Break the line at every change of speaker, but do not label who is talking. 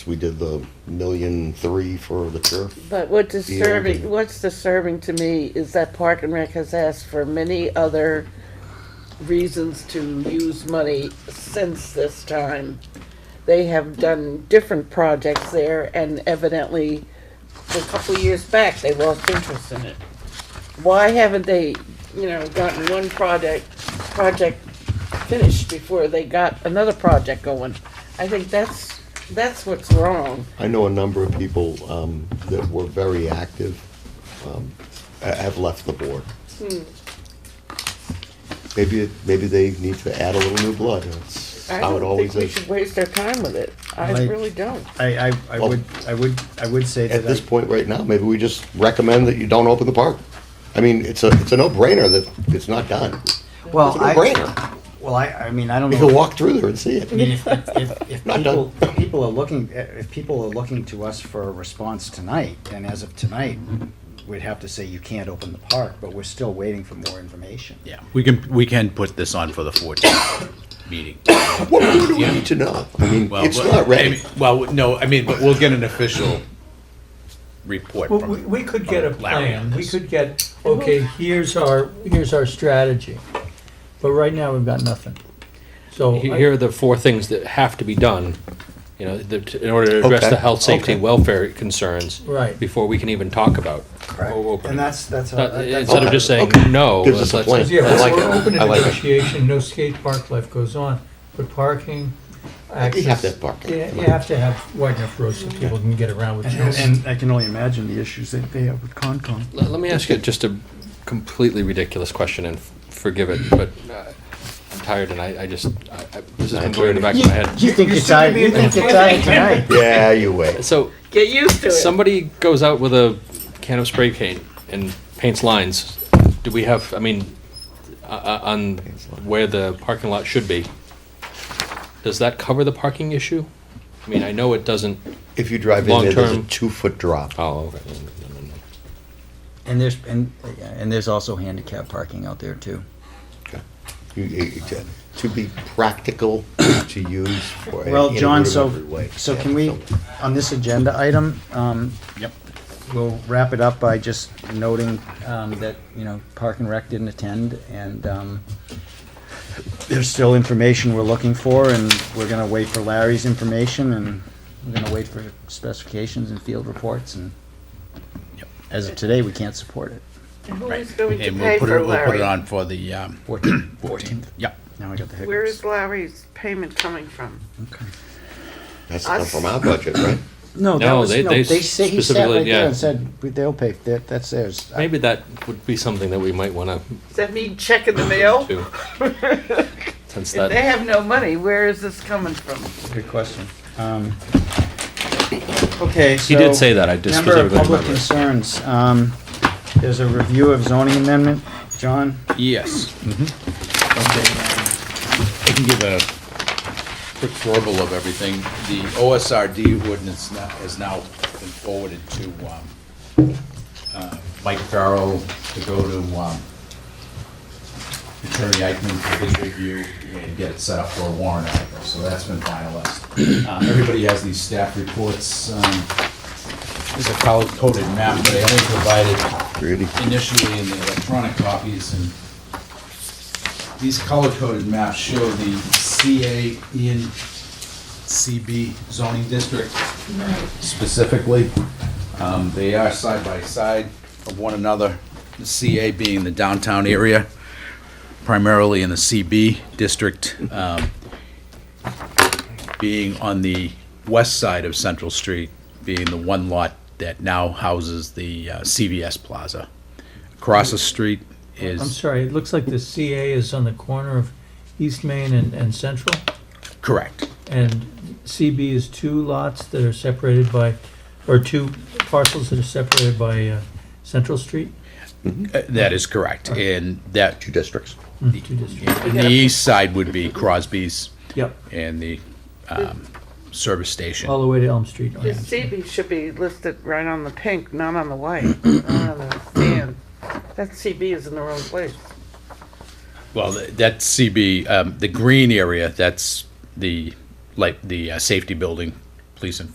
We did the million three for the turf.
But what's disturbing,
Yeah.
what's disturbing to me is that Park and Rec has asked for many other reasons to use money since this time. They have done different projects there and evidently, a couple of years back, they lost interest in it. Why haven't they, you know, gotten one project, project finished before they got another project going? I think that's, that's what's wrong.
I know a number of people um, that were very active um, ha- have left the board.
Hmm.
Maybe, it- maybe they need to add a little new blood. That's
I
how it
don't
always
think we
is.
should waste our time with it. I
Like-
really don't.
I, I, I
Well-
would, I would, I would say
At
that
this
I,
point right now, maybe we just recommend that you don't open the park. I mean, it's a, it's a no-brainer that it's not done. It's a
well, I,
no-brainer.
well, I, I mean, I don't
You
know.
can walk through there and see it.
I mean, if, if, if
Not
people,
done.
if people are looking, if people are looking to us for a response tonight, and as of tonight, we'd have to say you can't open the park, but we're still waiting for more information.
Yeah, we can, we can put this on for the 14th meeting.
What more do we need to know? I mean,
Well,
it's
but-
not
I
ready.
mean, Well, no, I mean, but we'll get an official report
Well, we,
from.
we could get a
from Larry on
plan, we
this.
could get, okay, here's our, here's our strategy, but right now we've got nothing. So,
Here-
I-
Here are the four things that have to be done, you know, that, in order to address
Okay,
the health, safety,
okay.
and welfare concerns.
Right.
Before we can even talk about.
Right.
opening.
And that's, that's.
Not-
that's-
Instead of just saying
Okay.
no.
Gives us a
let's-
plan.
yeah,
I like
we're
it.
open to
I like it.
negotiation, no skate park life goes on, but parking, access.
You have to have parking.
Yeah, You have to have wide enough roads so people can get around with
And,
children.
and I can only imagine the issues that they have with Concom.
Let, let me ask you just a completely ridiculous question and f- forgive it, but uh, I'm tired and I, I just, I, I- this has been going in the back of my head.
You think you're tired, you think you're tired tonight?
Yeah, you wait.
So
Get used to it.
somebody goes out with a can of spray paint and paints lines. Do we have, I mean, uh, on where the parking lot should be, does that cover the parking issue? I mean, I know it doesn't.
If you drive in there, there's a
Long-term.
two-foot drop.
Oh, okay.
And there's and and there's also handicap parking out there too.
You- you- you- To to be practical, to use for. in
Well,
an
John, so,
rudimentary way.
so
Yeah,
can we, on this agenda item, um,
Yep.
we'll wrap it up by just noting, um, that, you know, Park and Rec didn't attend and, um, there's still information we're looking for and we're gonna wait for Larry's information and we're gonna wait for specifications and field reports and
Yep.
as of today, we can't support it.
Who's going to
And we'll
pay
put it,
for
we'll put
Larry?
it on for the, um,
Fourteenth. Fourteenth.
yep.
Now I got the hiccups.
Where is Larry's payment coming from?
Okay.
That's come from our budget, right?
No, that
No,
was,
they-
no,
they
they say, he sat
specifically-
right there
yeah.
and said, they'll pay, that, that's theirs. I-
Maybe that would be something that we might want
Does that mean check in the mail?
to do. Since
If they
that,
have no money, where is this coming from?
Good question. Um, Okay, so.
he did say that, I just
Number of
specifically
public
remember.
concerns. Um, There's a review of zoning amendment. John?
Yes. I Mm-hmm. can give a quick verbal of everything. The OSRD ordinance now- has now been forwarded to um, uh, Mike Farrell to go to um, Attorney Eichman for his review and get it set up for a warrant article, so that's been finalized. Uh, Everybody has these staff reports. um, There's a coded map, but I only provided
Really?
initially in the electronic copies, and these color-coded maps show the CA in CB zoning district specifically. Um, They are side by side of one another, the CA being the downtown area, primarily in the CB district, um, being on the west side of Central Street, being the one lot that now houses the uh, CVS Plaza. Across the street
I'm
is,
sorry, it looks like the CA is on the corner of East Main and, and Central,
correct,
and CB is two lots that are separated by, or two parcels that are separated by, uh, Central Street,
Uh, that is correct, and that,
Two districts.
two districts.
and the east side would be Crosby's
Yep,
and the um, service station.
all the way to Elm Street.
The CB should be listed right on the pink, not on the white, not on the sand. That CB is in the wrong place.
Well, th- that's CB, um, the green area, that's the, like, the uh, safety building, police and